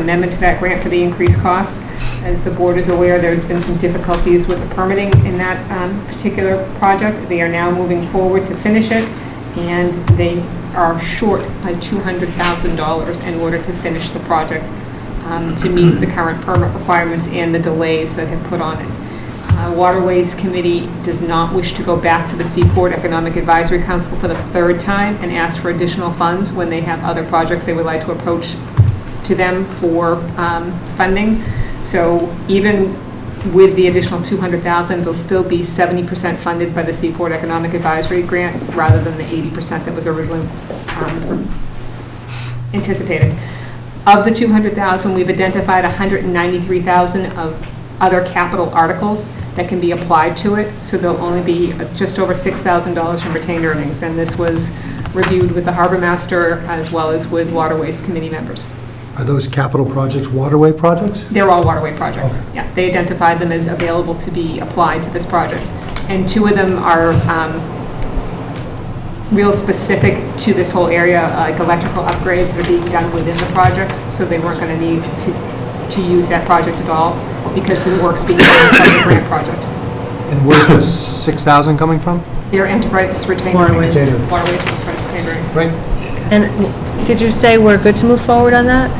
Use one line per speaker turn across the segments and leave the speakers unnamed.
amendment to that grant for the increased costs. As the board is aware, there's been some difficulties with the permitting in that um, particular project. They are now moving forward to finish it, and they are short by $200,000 in order to finish the project um, to meet the current permit requirements and the delays that have put on it. Uh, Waterways Committee does not wish to go back to the Seaport Economic Advisory Council for the third time and ask for additional funds when they have other projects they would like to approach to them for um, funding. So even with the additional 200,000, it'll still be 70% funded by the Seaport Economic Advisory Grant rather than the 80% that was originally um, anticipated. Of the 200,000, we've identified 193,000 of other capital articles that can be applied to it, so there'll only be just over $6,000 from retained earnings, and this was reviewed with the harbor master as well as with waterways committee members.
Are those capital projects waterway projects?
They're all waterway projects, yeah. They identified them as available to be applied to this project, and two of them are um, real specific to this whole area, uh, like electrical upgrades that are being done within the project, so they weren't going to need to, to use that project at all because the work's being done from the grant project.
And where's the 6,000 coming from?
Their enterprise retained
Waterways.
earnings. Waterways enterprise retained earnings.
Right?
And did you say we're good to move forward on that?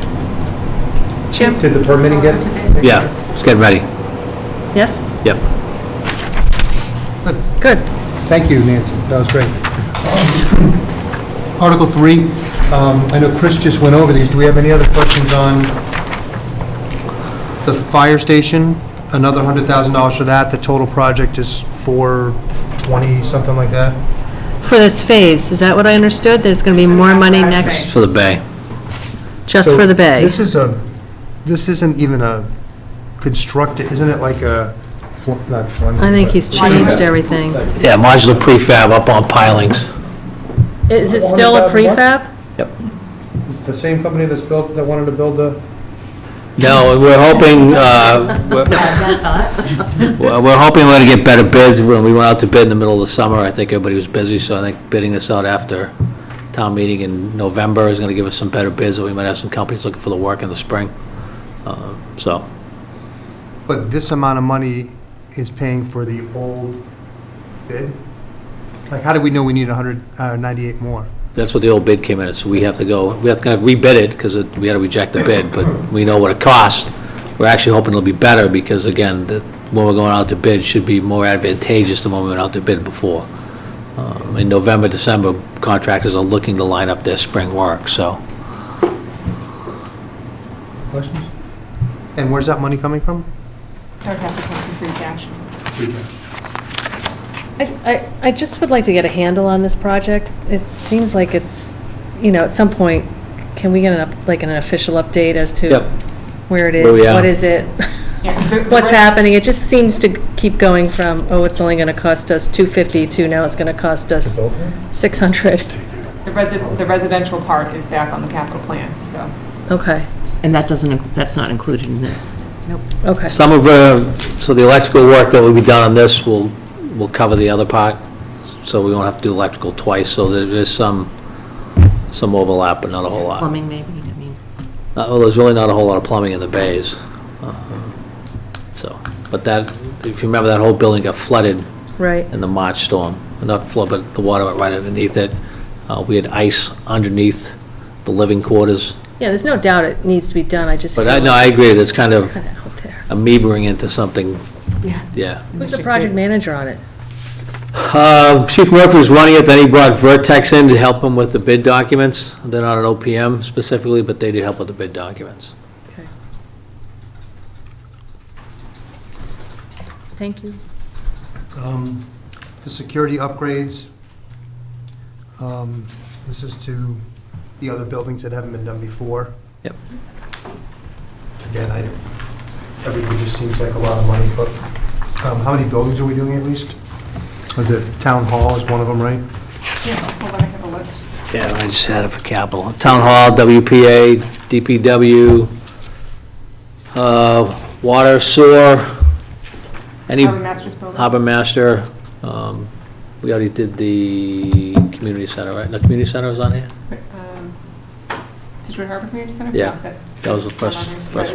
Jim?
Did the permitting get?
Yeah, it's getting ready.
Yes?
Yep.
Good.
Thank you, Nancy. That was great. Article 3, um, I know Chris just went over these. Do we have any other questions on the fire station? Another $100,000 for that. The total project is 420, something like that?
For this phase, is that what I understood? There's going to be more money
Last
next,
phase.
For the bay.
just
So
for the bay?
This is a, this isn't even a constructed, isn't it like a, fl- not Fleming?
I think
but-
he's changed everything.
Yeah, modular prefab up on pilings.
Is it still a
100,000
prefab?
It's The same company that's built, that wanted to build the,
No, we're hoping, uh, we're we're hoping we're going to get better bids. When we went out to bid in the middle of the summer, I think everybody was busy, so I think bidding this out after town meeting in November is going to give us some better bids, or we might have some companies looking for the work in the spring. Uh, So,
but this amount of money is paying for the old bid? Like, how do we know we need 198 more?
That's what the old bid came in, at, so we have to go, we have to kind of rebid it, because we had to reject the bid, but we know what it cost. We're actually hoping it'll be better, because again, the- when we're going out to bid should be more advantageous than when we went out to bid before. Um, In November, December, contractors are looking to line up their spring work, so.
Questions? And where's that money coming from?
Don't have to come to free cash.
I, I I just would like to get a handle on this project. It seems like it's, you know, at some point, can we get an, up- like an official update as to
Yep.
where it
Where
is,
we are.
what is it,
Yeah, 'cause the- the
what's
rest-
happening? It just seems to keep going from, oh, it's only going to cost us 250 to now it's going to cost us 600.
The resi- the residential part is back on the capital plan, so.
Okay,
And that doesn't, inc- that's not included in this.
okay.
Some of, uh, so the electrical work that will be done on this will, will cover the other part, so we won't have to do electrical twice, so there is some, some overlap, but not a whole lot.
Plumbing, maybe, I mean.
Uh, Well, there's really not a whole lot of plumbing in the bays. Uh, So, but that, if you remember, that whole building got flooded
Right,
in the March storm. Not flood, but the water went right underneath it. Uh, We had ice underneath the living quarters.
yeah, there's no doubt it needs to be done, I just.
But I,
feel
no, I
like
agree, it's kind of
it's kinda out there.
amoebering into something, yeah.
Who's the project manager on it?
Uh, Chief Murphy was running it, then he brought Vertex in to help him with the bid documents. They're not an OPM specifically, but they did help with the bid documents.
Okay. Thank you.
Um, The security upgrades, um, this is to the other buildings that haven't been done before.
Yep.
Again, I, everything just seems like a lot of money, but um, how many buildings are we doing at least? Was it Town Hall is one of them, right?
Yeah, hold on, I have a list.
Yeah, I just had it for capital. Town Hall, WPA, DPW, uh, Water, Sewer, any,
Harbor Masters building.
Harbor Master. um, We already did the community center, right? The community center was on here?
Um, Situate Harbor Community Center?
Yeah.
No, that-
That was the
Not
first,
on there.
first